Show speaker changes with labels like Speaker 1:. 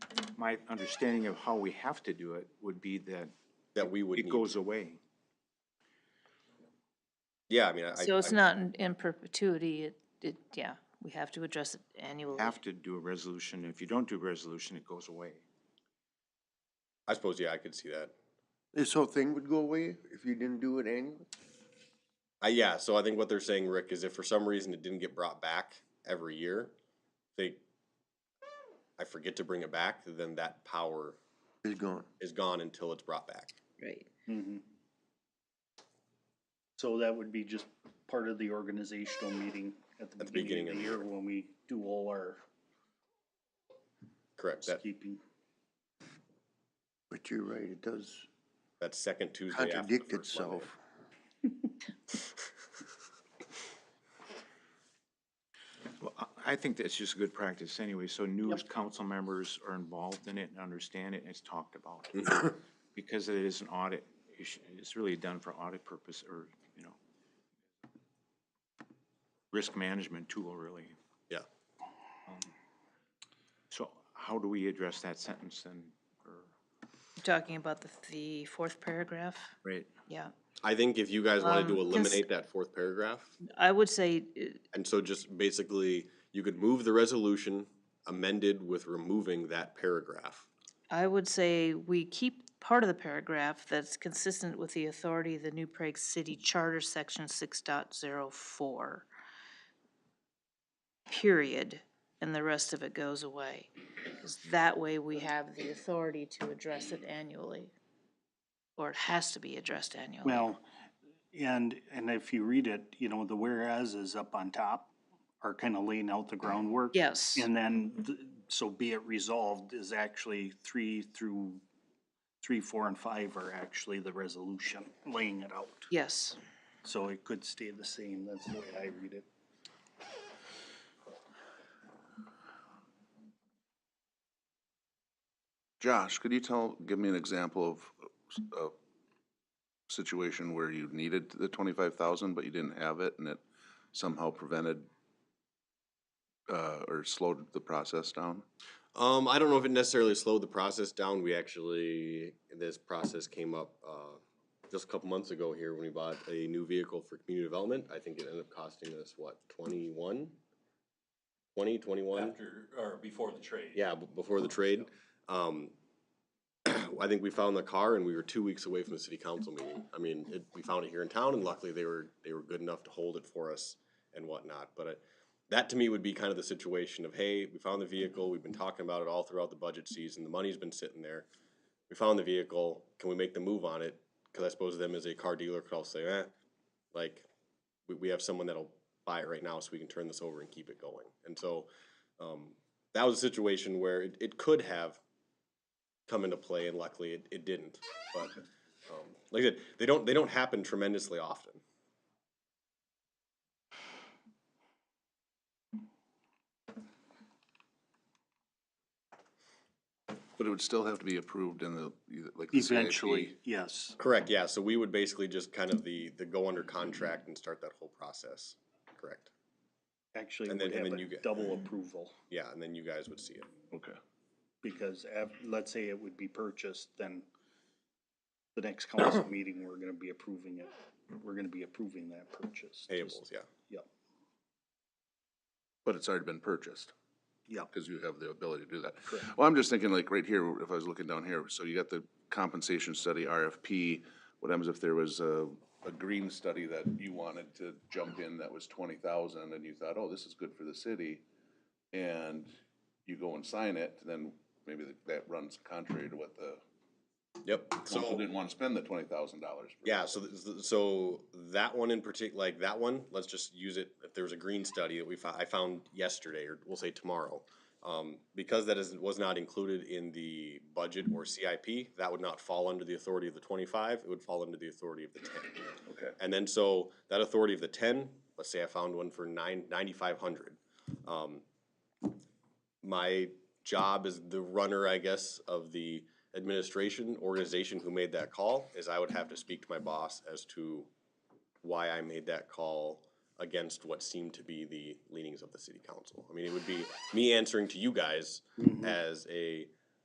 Speaker 1: my understanding of how we have to do it would be that
Speaker 2: that we would
Speaker 1: it
Speaker 2: need.
Speaker 1: goes away.
Speaker 2: Yeah, I mean, I,
Speaker 3: So it's
Speaker 2: I-
Speaker 3: not in- in perpetuity, it, it, yeah, we have to address it annually.
Speaker 1: Have to do a resolution. If you don't do a resolution, it goes away.
Speaker 2: I suppose, yeah, I could see that.
Speaker 4: This whole thing would go away if you didn't do it annually?
Speaker 2: I, yeah, so I think what they're saying, Rick, is if for some reason it didn't get brought back every year, they, I forget to bring it back, then that power
Speaker 4: It's gone.
Speaker 2: is gone until it's brought back.
Speaker 3: Right.
Speaker 5: Mm-hmm. So that would be just part of the organizational meeting at the beginning of the year when we do all our
Speaker 2: Correct, that,
Speaker 5: housekeeping.
Speaker 4: But you're right, it does
Speaker 2: that second Tuesday after the
Speaker 4: contradict
Speaker 2: first Monday.
Speaker 4: itself.
Speaker 1: Well, I- I think that's just good practice anyway, so new council members are involved in it and understand it and it's talked about. Because it is an audit, issue. it's really done for audit purpose or, you know, risk management tool, really.
Speaker 2: Yeah,
Speaker 1: So how do we address that sentence then? or-
Speaker 3: Talking about the, the fourth paragraph,
Speaker 1: Right.
Speaker 3: yeah.
Speaker 2: I think if you guys wanted
Speaker 3: Um,
Speaker 2: to
Speaker 3: 'cause-
Speaker 2: eliminate that fourth paragraph,
Speaker 3: I would say, uh,
Speaker 2: and so just basically, you could move the resolution amended with removing that paragraph.
Speaker 3: I would say we keep part of the paragraph that's consistent with the authority of the New Prague City Charter, section six dot zero four. Period, and the rest of it goes away. 'Cause that way we have the authority to address it annually. Or it has to be addressed annually.
Speaker 5: Well, and, and if you read it, you know, the whereas is up on top are kind of laying out the groundwork.
Speaker 3: Yes,
Speaker 5: And then, the- so be it resolved is actually three through, three, four, and five are actually the resolution, laying it out.
Speaker 3: yes.
Speaker 5: So it could stay the same, that's the way I read it.
Speaker 6: Josh, could you tell, give me an example of s- a situation where you needed the twenty-five thousand, but you didn't have it, and it somehow prevented uh, or slowed the process down?
Speaker 2: Um, I don't know if it necessarily slowed the process down. We actually, this process came up, uh, just a couple months ago here when we bought a new vehicle for community development. I think it ended up costing us, what, twenty-one? Twenty, twenty-one?
Speaker 7: After, or before the trade.
Speaker 2: Yeah, b- before the trade. Um, I think we found the car and we were two weeks away from the city council meeting. I mean, it, we found it here in town and luckily they were, they were good enough to hold it for us and whatnot. But it, that to me would be kind of the situation of, hey, we found the vehicle, we've been talking about it all throughout the budget season, the money's been sitting there. We found the vehicle, can we make the move on it? Cause I suppose them as a car dealer could also say, eh, like, we, we have someone that'll buy it right now so we can turn this over and keep it going. And so, um, that was a situation where it, it could have come into play, and luckily it, it didn't. But um, like I said, they don't they don't happen tremendously often.
Speaker 6: But it would still have to be approved in the, like the CIP.
Speaker 5: Eventually, yes.
Speaker 2: Correct. Yeah. So we would basically just kind of the the go under contract and start that whole process. Correct.
Speaker 5: Actually,
Speaker 2: And then-
Speaker 5: we
Speaker 2: and
Speaker 5: have
Speaker 2: then you
Speaker 5: a
Speaker 2: get- Mm-hmm.
Speaker 5: double approval,
Speaker 2: Yeah, and then you guys would see it.
Speaker 6: Okay.
Speaker 5: because af- let's say it would be purchased, then the next council meeting, we're gonna be approving it. We're gonna be approving that purchase. Just-
Speaker 2: Payables. Yeah.
Speaker 5: Yep,
Speaker 6: But it's already been purchased,
Speaker 5: yep.
Speaker 6: because you have the ability to do that. Well, I'm just thinking like right here, if I was looking down here, so you got the compensation study, RFP. What happens if there was a, a green study that you wanted to jump in that was twenty thousand and you thought, oh, this is good for the city? And you go and sign it, then maybe that- that runs contrary to what the,
Speaker 2: Yep.
Speaker 6: council
Speaker 2: So
Speaker 6: didn't want to spend the twenty thousand dollars.
Speaker 2: Yeah, so th- th- so that one in particular, like that one, let's just use it. If there was a green study that we fou- I found yesterday, or we'll say tomorrow, um, because that is was not included in the budget or CIP, that would not fall under the authority of the twenty five. It would fall under the authority of the ten.
Speaker 6: Okay.
Speaker 2: And then so that authority of the ten, let's say I found one for nine, ninety-five hundred. Um, my job as the runner, I guess, of the administration organization who made that call is I would have to speak to my boss as to why I made that call against what seemed to be the leanings of the city council. I mean, it would be me answering to you guys as a